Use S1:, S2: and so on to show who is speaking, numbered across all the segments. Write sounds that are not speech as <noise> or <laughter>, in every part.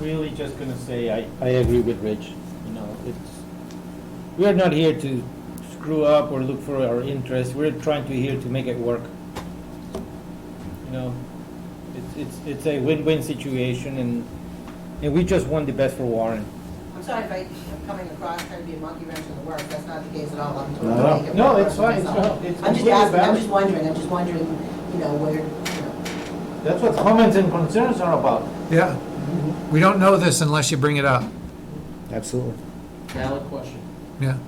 S1: really just gonna say, I, I agree with Rich, you know, it's, we're not here to screw up or look for our interests, we're trying to here to make it work. You know, it's, it's, it's a win-win situation and, and we just want the best for Warren.
S2: I'm sorry if I, I'm coming across trying to be a monkey wrench in the works, that's not the case at all, I'm
S3: No, no.
S2: totally. making
S1: No,
S2: fun of
S1: it's fine, it's
S2: myself.
S1: not- it's
S2: I'm just
S1: completely
S2: asking, I'm
S1: valid.
S2: just wondering, I'm just wondering, you know, where, you
S1: That's what comments and concerns are about.
S4: Yeah, we don't know this unless you bring it up,
S3: Absolutely.
S5: Valid question.
S4: yeah.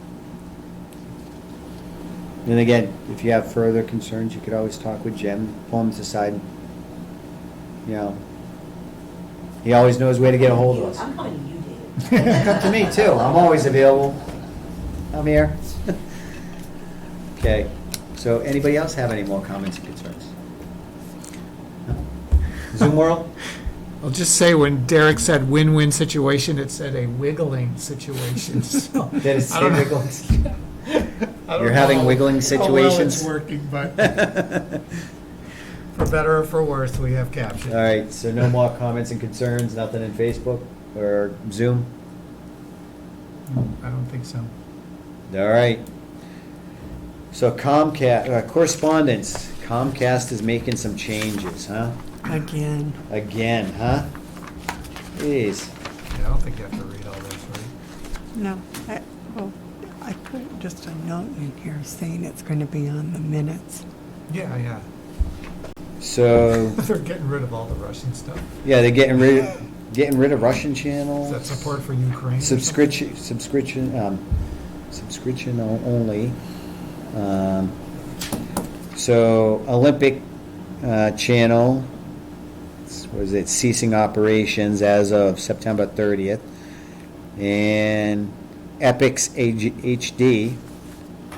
S3: And again, if you have further concerns, you could always talk with Jim, pull him to the side. You know, he always knows where to get a hold
S2: know.
S3: of us.
S2: I'm coming to you, David.
S3: Come <laughs> to me too, I'm always available. I'm here. <laughs> Okay, so anybody else have any more comments and concerns? No?
S4: <laughs>
S3: Zoom world?
S4: I'll just say, when Derek said win-win situation, it said a wiggling situation, <laughs> so.
S3: Did it say
S4: I don't know.
S3: wiggles?
S4: I don't
S3: You're having
S4: know
S3: wiggling
S4: How well it's
S3: situations?
S4: working,
S3: <laughs>
S4: but
S3: All
S4: for better or for worse, we have captions.
S3: right, so no more comments and concerns, nothing in Facebook or Zoom?
S4: I don't think so.
S3: All right. So Comcast, uh, correspondence, Comcast is making some changes, huh?
S6: Again,
S3: Again, huh? Jeez.
S4: Yeah, I don't think you have to read all this, right?
S6: no, I, well, I put just a note in here saying it's going to be on the minutes.
S4: Yeah, yeah. <laughs>
S3: So,
S4: They're getting rid of all the Russian stuff.
S3: yeah, they're getting rid, getting rid of Russian channels.
S4: Is that support for Ukraine? or something?
S3: Subscription, subscription, um, subscription o- only. Um, So Olympic, uh, channel, s- was it ceasing operations as of September thirtieth? And Epix H- HD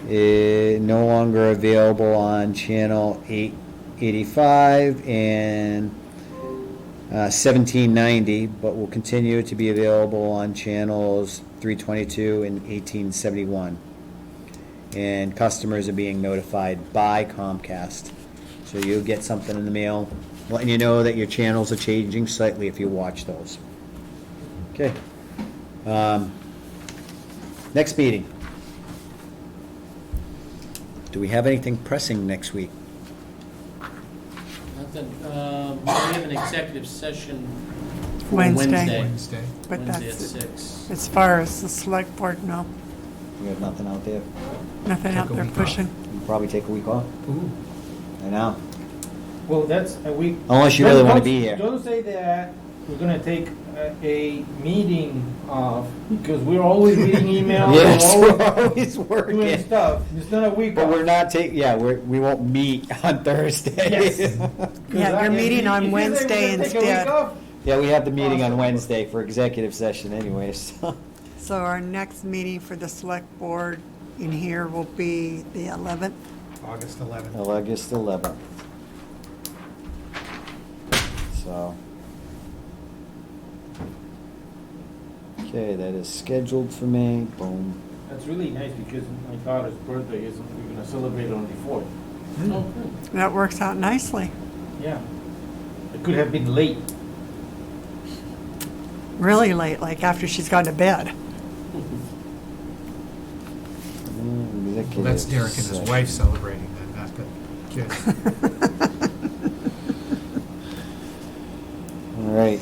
S3: is no longer available on channel eight eighty-five and uh, 1790, but will continue to be available on channels 322 and 1871. And customers are being notified by Comcast. So you'll get something in the mail letting you know that your channels are changing slightly if you watch those. Okay. Um, Next meeting. Do we have anything pressing next week?
S5: Nothing, um, we have an executive session for
S6: Wednesday.
S5: Wednesday.
S4: Wednesday.
S6: But
S5: Wednesday at
S6: that's,
S5: six.
S6: as far as the select board, no,
S3: We have nothing out there.
S6: nothing out
S4: Took a
S6: there
S4: week off.
S6: pushing.
S3: We'll Probably take a week off.
S4: Ooh,
S3: I know.
S1: Well, that's a week.
S3: Unless you
S1: Don't-
S3: really wanna
S1: don't-
S3: be here.
S1: Don't say that. We're gonna take a, a meeting off because we're always
S3: <laughs>
S1: reading emails.
S3: Yes,
S1: We're
S3: we're
S1: always
S3: always
S1: doing
S3: working.
S1: stuff. It's not a week
S3: But we're
S1: off.
S3: not taking, yeah, we're, we won't meet <laughs> on Thursday.
S1: Yes.
S6: Yeah, you're meeting on Wednesday instead.
S3: Yeah, we have the meeting on Wednesday for executive session anyways. <laughs>
S6: So our next meeting for the select board in here will be the 11th.
S4: August 11th.
S3: August eleventh. So. Okay, that is scheduled for me, boom.
S1: That's really nice because my daughter's birthday is, we're gonna celebrate on the fourth.
S5: Oh, good.
S6: That works out nicely.
S1: Yeah. It could have been late.
S6: Really late, like after she's gone to bed.
S3: Oh,
S4: Well, that's Derek and his wife celebrating then, not the kids.
S3: All right.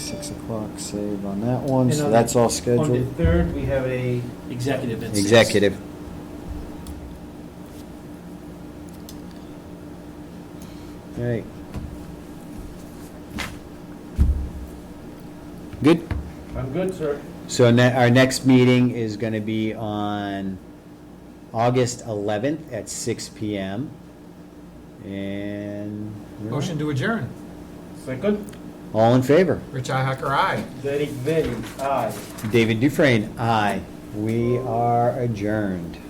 S3: Six o'clock save on that one,
S1: And
S3: so
S1: on
S3: that's
S1: the-
S3: all
S1: On the
S3: scheduled.
S1: third, we have a,
S5: Executive at six.
S3: Executive. All right. Good.
S1: I'm good, sir.
S3: So ne- our next meeting is gonna be on August eleventh at six P M. And.
S4: Motion to adjourn.
S1: Second,
S3: All in favor?
S4: Rich Ihacker, aye.
S1: Derek Bailey, aye.
S3: David Dufresne, aye. We are adjourned.